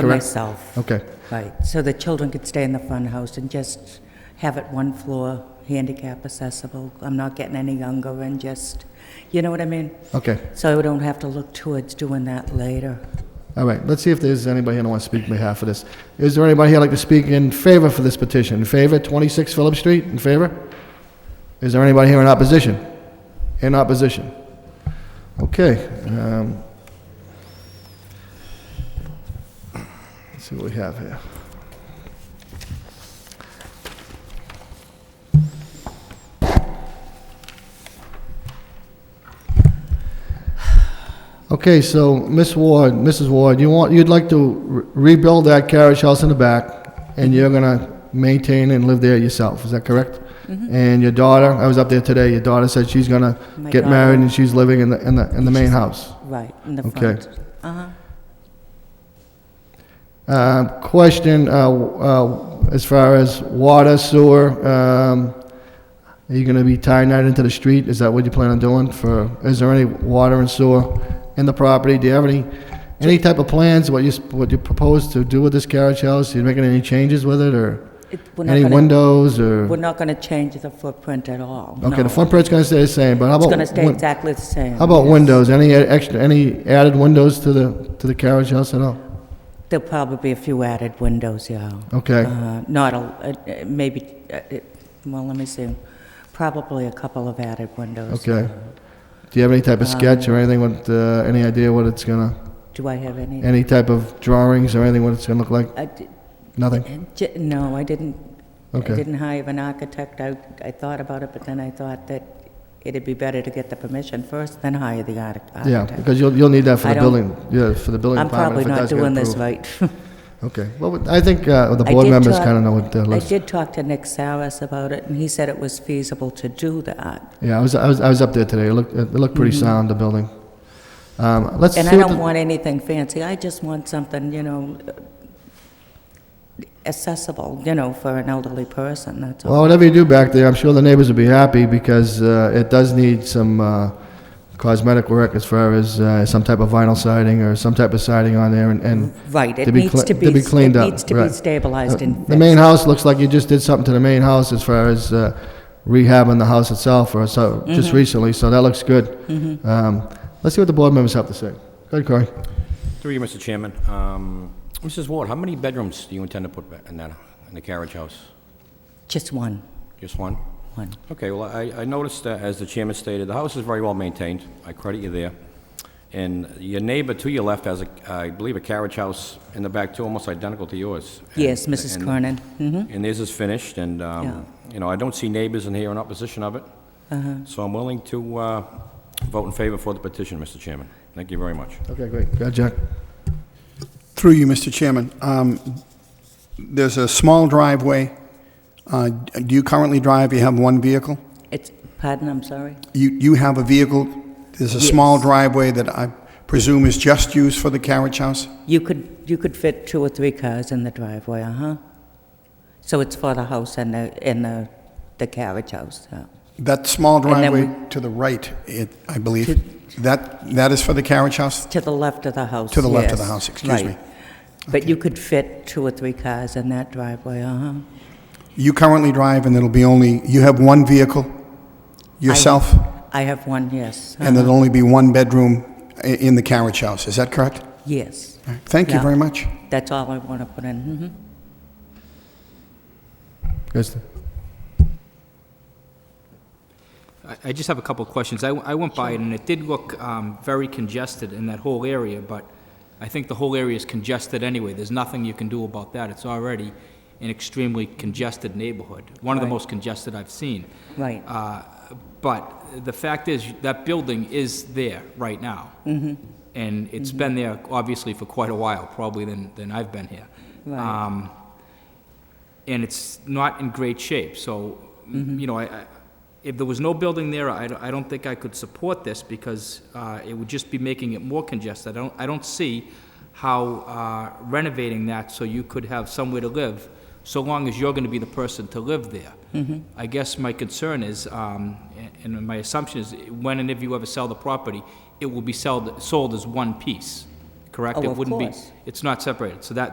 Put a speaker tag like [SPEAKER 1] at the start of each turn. [SPEAKER 1] for
[SPEAKER 2] Correct.
[SPEAKER 1] myself.
[SPEAKER 2] Okay.
[SPEAKER 1] Right, so the children could stay in the fun house and just have it one floor, handicap accessible. I'm not getting any younger and just, you know what I mean?
[SPEAKER 2] Okay.
[SPEAKER 1] So I don't have to look towards doing that later.
[SPEAKER 2] All right, let's see if there's anybody here that wants to speak on behalf of this. Is there anybody here like to speak in favor for this petition? In favor, 26 Phillips Street, in favor? Is there anybody here in opposition? In opposition? Okay. um, Let's see what we have here. Okay, so Miss Ward, Mrs. Ward, you want, you'd like to re- rebuild that carriage house in the back, and you're gonna maintain and live there yourself, is that correct? And your daughter, I was up there today, your daughter said she's gonna
[SPEAKER 1] Mm-hmm. My
[SPEAKER 2] get
[SPEAKER 1] daughter.
[SPEAKER 2] married and she's living in the, in the, in the main house.
[SPEAKER 1] Right, in the
[SPEAKER 2] Okay.
[SPEAKER 1] front. Uh-huh.
[SPEAKER 2] Uh, Question, uh, uh, as far as water, sewer, um, are you gonna be tying that into the street? Is that what you plan on doing for, is there any water and sewer in the property? Do you have any, any type of plans, what you, s- what you propose to do with this carriage house? You making any changes with it, or
[SPEAKER 1] It- we're not
[SPEAKER 2] any
[SPEAKER 1] gonna-
[SPEAKER 2] windows,
[SPEAKER 1] We're
[SPEAKER 2] or?
[SPEAKER 1] not going to change the footprint at all.
[SPEAKER 2] Okay,
[SPEAKER 1] no.
[SPEAKER 2] the footprint's gonna stay the same, but how
[SPEAKER 1] It's
[SPEAKER 2] about?
[SPEAKER 1] going to stay
[SPEAKER 2] win-
[SPEAKER 1] exactly the same.
[SPEAKER 2] How about
[SPEAKER 1] yes.
[SPEAKER 2] windows? Any e-, extra, any added windows to the, to the carriage house at all?
[SPEAKER 1] There'll probably be a few added windows, yeah.
[SPEAKER 2] Okay.
[SPEAKER 1] Uh, Not a, uh, uh, maybe, uh, it- well, let me see, probably a couple of added windows. Uh,
[SPEAKER 2] Okay. Do you have any type of sketch or anything with, uh, any idea what it's gonna,
[SPEAKER 1] Do I have any?
[SPEAKER 2] any type of drawings or anything what it's gonna look like?
[SPEAKER 1] I di-
[SPEAKER 2] Nothing?
[SPEAKER 1] j- No, I didn't, I
[SPEAKER 2] Okay.
[SPEAKER 1] didn't hire an architect. I, I thought about it, but then I thought that it'd be better to get the permission first, then hire the arch-
[SPEAKER 2] Yeah,
[SPEAKER 1] architect.
[SPEAKER 2] because you'll, you'll need that for
[SPEAKER 1] I
[SPEAKER 2] the
[SPEAKER 1] don't-
[SPEAKER 2] building, yeah, for the building
[SPEAKER 1] I'm
[SPEAKER 2] department.
[SPEAKER 1] probably
[SPEAKER 2] if it
[SPEAKER 1] not
[SPEAKER 2] does get
[SPEAKER 1] doing this
[SPEAKER 2] approved.
[SPEAKER 1] right.
[SPEAKER 2] Okay, well, I think, uh, the
[SPEAKER 1] I
[SPEAKER 2] board
[SPEAKER 1] did
[SPEAKER 2] members
[SPEAKER 1] talk-
[SPEAKER 2] kinda know what they're
[SPEAKER 1] I
[SPEAKER 2] looking.
[SPEAKER 1] did talk to Nick Saras about it, and he said it was feasible to do that.
[SPEAKER 2] Yeah, I was, I was, I was up there today. It looked, it looked pretty sound, the building. Um, let's see.
[SPEAKER 1] Mm-hmm. And I
[SPEAKER 2] what
[SPEAKER 1] don't
[SPEAKER 2] the-
[SPEAKER 1] want anything fancy, I just want something, you know, accessible, you know, for an elderly person, that's all.
[SPEAKER 2] Well, whatever you do back there, I'm sure the neighbors will be happy because, uh, it does need some, uh, cosmetic work as far as, uh, some type of vinyl siding or some type of siding on there and, and
[SPEAKER 1] Right,
[SPEAKER 2] to
[SPEAKER 1] it
[SPEAKER 2] be
[SPEAKER 1] needs
[SPEAKER 2] cle-
[SPEAKER 1] to be.
[SPEAKER 2] to be cleaned
[SPEAKER 1] it
[SPEAKER 2] up,
[SPEAKER 1] needs to be
[SPEAKER 2] right. Uh,
[SPEAKER 1] stabilized and
[SPEAKER 2] The main
[SPEAKER 1] fixed.
[SPEAKER 2] house looks like you just did something to the main house as far as uh, rehabbing the house itself, or so, just recently, so that looks good. Um, Let's see what the board members have to say. Go ahead, Corey.
[SPEAKER 3] Through you, Mr. Chairman. Um, Mrs. Ward, how many bedrooms do you intend to put ba- in that, in the carriage house?
[SPEAKER 1] Just one,
[SPEAKER 3] Just one?
[SPEAKER 1] one.
[SPEAKER 3] Okay, well, I I noticed that, as the chairman stated, the house is very well maintained. I credit you there. And your neighbor to your left has, a, I believe, a carriage house in the back, too, almost identical to yours. And-
[SPEAKER 1] Yes, Mrs.
[SPEAKER 3] and-
[SPEAKER 1] Cronin, mhm.
[SPEAKER 3] And theirs is finished, and, um, you know, I don't see neighbors in here in opposition of it. So I'm willing to uh, vote in favor for the petition, Mr. Chairman. Thank you very much.
[SPEAKER 2] Okay, great. Go ahead, Jack.
[SPEAKER 4] Through you, Mr. Chairman. Um, There's a small driveway. Uh, Do you currently drive, you have one vehicle?
[SPEAKER 1] It's, pardon, I'm sorry?
[SPEAKER 4] You you have a vehicle, there's a small
[SPEAKER 1] Yes.
[SPEAKER 4] driveway that I presume is just used for the carriage house?
[SPEAKER 1] You could, you could fit two or three cars in the driveway, uh-huh. So it's for the house and the, and the, the carriage house, yeah.
[SPEAKER 4] That small
[SPEAKER 1] then
[SPEAKER 4] driveway to the right, it- I believe, that that is for the carriage house?
[SPEAKER 1] To the left of the house,
[SPEAKER 4] To the left of the
[SPEAKER 1] yes,
[SPEAKER 4] house, excuse me.
[SPEAKER 1] right. But you could fit two or three cars in that driveway, uh-huh.
[SPEAKER 4] You currently drive, and it'll be only, you have one vehicle yourself,
[SPEAKER 1] I have one, yes.
[SPEAKER 4] and
[SPEAKER 1] uh-huh.
[SPEAKER 4] there'll only be one bedroom i- in the carriage house, is that correct?
[SPEAKER 1] Yes,
[SPEAKER 4] All right. Thank you
[SPEAKER 1] Yeah.
[SPEAKER 4] very much.
[SPEAKER 1] that's all I want to put in, mhm.
[SPEAKER 2] Yes.
[SPEAKER 5] I- I just have a couple of questions. I I went by it, and it did look um, very congested in that whole area, but I think the whole area is congested anyway. There's nothing you can do about that. It's already an extremely congested neighborhood, one of the
[SPEAKER 1] Right.
[SPEAKER 5] most congested I've seen.
[SPEAKER 1] Right.
[SPEAKER 5] Uh, But the fact is, that building is there right now.
[SPEAKER 1] Mm-hmm.
[SPEAKER 5] And it's been there, obviously, for quite a while, probably than than I've been here.
[SPEAKER 1] Right.
[SPEAKER 5] Um, and it's not in great shape, so,
[SPEAKER 1] Mm-hmm.
[SPEAKER 5] you know, I, I- if there was no building there, I don't- I don't think I could support this, because uh, it would just be making it more congested. I don't, I don't see how uh, renovating that so you could have somewhere to live, so long as you're gonna be the person to live there.
[SPEAKER 1] Mm-hmm.
[SPEAKER 5] I guess my concern is, um, a- and my assumption is, when and if you ever sell the property, it will be sold, sold as one piece, correct?
[SPEAKER 1] Oh,
[SPEAKER 5] It
[SPEAKER 1] of
[SPEAKER 5] wouldn't be-
[SPEAKER 1] course.
[SPEAKER 5] It's not separated, so that,